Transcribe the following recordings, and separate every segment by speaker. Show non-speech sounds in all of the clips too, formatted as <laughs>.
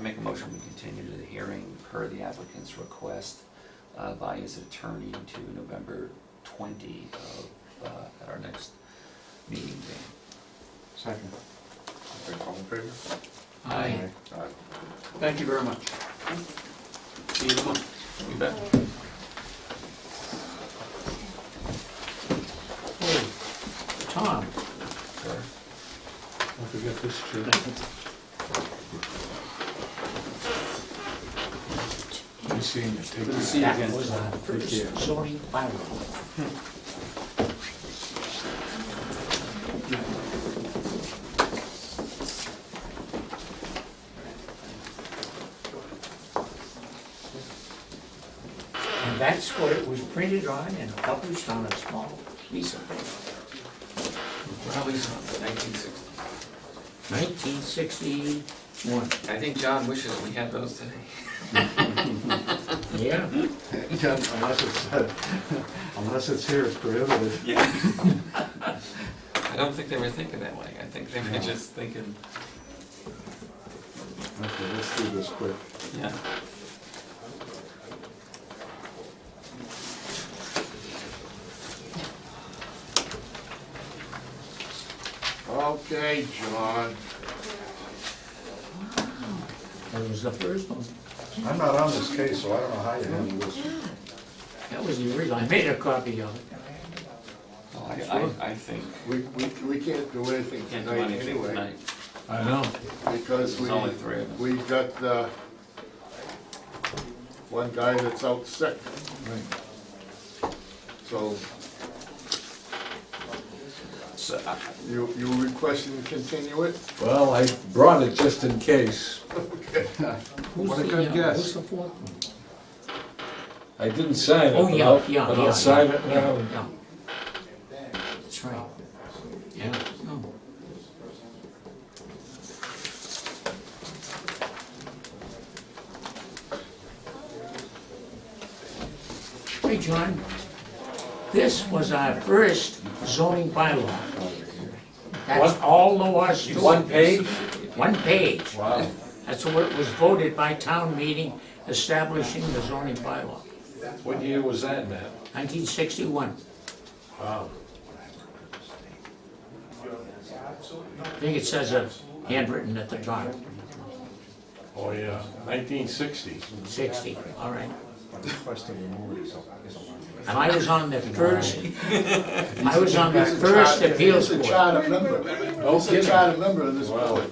Speaker 1: make a motion, we continue the hearing per the applicant's request uh, by his attorney to November 20 of, uh, at our next meeting day.
Speaker 2: Second.
Speaker 3: Okay, all in favor?
Speaker 4: Aye.
Speaker 3: Aye.
Speaker 2: Thank you very much. See you tomorrow.
Speaker 1: You bet.
Speaker 2: Hey, Tom,
Speaker 1: Sure.
Speaker 5: Don't forget this, Jim. Nice seeing you. Take
Speaker 2: good to
Speaker 5: care.
Speaker 2: see you again.
Speaker 4: That was our
Speaker 5: Take care.
Speaker 4: first zoning bylaw. And that's what it was printed on and published on a small piece of paper.
Speaker 6: Probably nineteen sixty.
Speaker 4: Nineteen sixty-one,
Speaker 6: I think John wishes we had those today.
Speaker 4: yeah.
Speaker 5: <laughs> Yeah, Unless it's, <laughs> uh, unless it's here, it's prohibited.
Speaker 6: I don't think they were thinking that way. I think they were just thinking,
Speaker 5: Okay, let's do this quick.
Speaker 6: yeah.
Speaker 3: Okay, John.
Speaker 4: That was the first one.
Speaker 5: I'm not on this case, so I don't know how you handle this.
Speaker 4: That was the original. I made a copy of it.
Speaker 1: Well, Oh, I- I, I think.
Speaker 3: We, we, we can't do anything
Speaker 1: Can't do
Speaker 3: tonight
Speaker 1: anything
Speaker 3: anyway,
Speaker 1: tonight.
Speaker 5: I know.
Speaker 3: because we,
Speaker 1: There's only three of us.
Speaker 3: we got, uh, one guy that's out sick, so
Speaker 1: So, uh,
Speaker 3: you, you requesting to continue it?
Speaker 7: Well, I brought it just in case.
Speaker 4: Who's
Speaker 5: What a
Speaker 4: the,
Speaker 5: good
Speaker 4: uh,
Speaker 5: guess.
Speaker 4: Who's the fourth one?
Speaker 7: I didn't sign it,
Speaker 4: Oh,
Speaker 7: but
Speaker 4: yeah,
Speaker 7: I'll,
Speaker 4: yeah,
Speaker 7: but
Speaker 4: yeah,
Speaker 7: I'll sign
Speaker 4: yeah,
Speaker 7: it now.
Speaker 4: Yeah. That's right. Yeah, no. Hey, John, this was our first zoning bylaw. That's
Speaker 7: One-
Speaker 4: all there was to it.
Speaker 7: One page?
Speaker 4: One page.
Speaker 7: Wow.
Speaker 4: That's what was voted by town meeting establishing the zoning bylaw,
Speaker 7: What year was that, Matt?
Speaker 4: 1961.
Speaker 7: Wow.
Speaker 4: I think it says it handwritten at the top,
Speaker 7: Oh, yeah, nineteen sixty.
Speaker 4: 60, all right.
Speaker 5: Question removed, so.
Speaker 4: And I was on the first, I was on the first appeals
Speaker 3: He's a
Speaker 4: board.
Speaker 3: charter member,
Speaker 7: No
Speaker 3: he's a
Speaker 7: kidding.
Speaker 3: charter member of this
Speaker 7: Wow.
Speaker 3: board.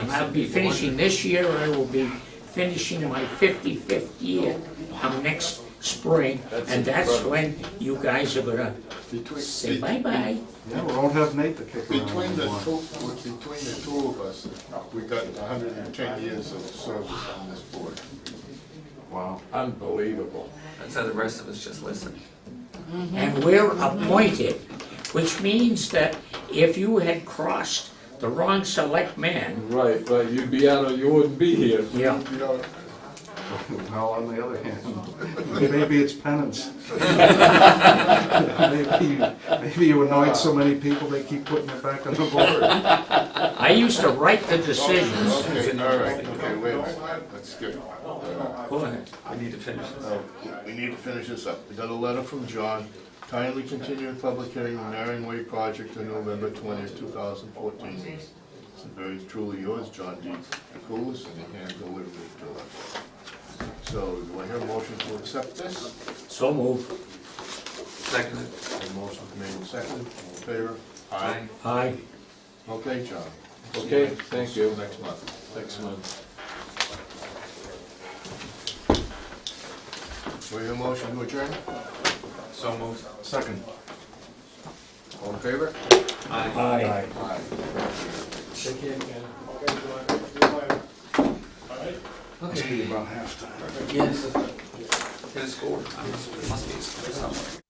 Speaker 4: And I'll be finishing this year, I will be finishing my 55th year come next spring. And that's when you guys are gonna
Speaker 3: Between,
Speaker 4: say
Speaker 3: be-
Speaker 4: bye-bye.
Speaker 6: Mm-hmm.
Speaker 5: Yeah, we don't have Nate to kick around
Speaker 3: between the
Speaker 5: anymore.
Speaker 3: two, between the two of us, we got hundred and ten years of service on this board.
Speaker 5: Wow.
Speaker 7: Unbelievable.
Speaker 6: That's how the rest of us just listen.
Speaker 4: and we're appointed, which means that if you had crossed the wrong select man,
Speaker 7: Right, but you'd be out of, you wouldn't be here.
Speaker 4: yeah,
Speaker 3: You know,
Speaker 5: <laughs> Well, on the other hand, maybe it's
Speaker 3: <laughs>
Speaker 5: penance. <laughs> Maybe, maybe you annoyed so many people, they keep putting it back on the board.
Speaker 4: I used to write the decisions.
Speaker 3: Okay, all right, okay, wait a minute, that's good.
Speaker 4: Go ahead.
Speaker 6: We need to finish this.
Speaker 3: Uh, We need to finish this up. We got a letter from John, kindly continue public hearing on Marion Way project to November twentieth, two thousand fourteen. It's very truly yours, John D. Coolis, and he hand delivered it to us. So, do I hear a motion to accept this?
Speaker 4: So move.
Speaker 6: Second,
Speaker 3: A motion made and seconded, all in favor?
Speaker 6: aye.
Speaker 4: Aye.
Speaker 3: Okay, John.
Speaker 7: Okay, thank you.
Speaker 3: Next month.
Speaker 7: Next month.
Speaker 3: Do I hear a motion to adjourn?
Speaker 6: So moved.
Speaker 5: Second.
Speaker 3: All in favor?
Speaker 6: Aye.
Speaker 4: Aye.
Speaker 3: Aye.
Speaker 5: Must be about half time.
Speaker 6: Yes. Hit a score. I must, must be a score somewhere.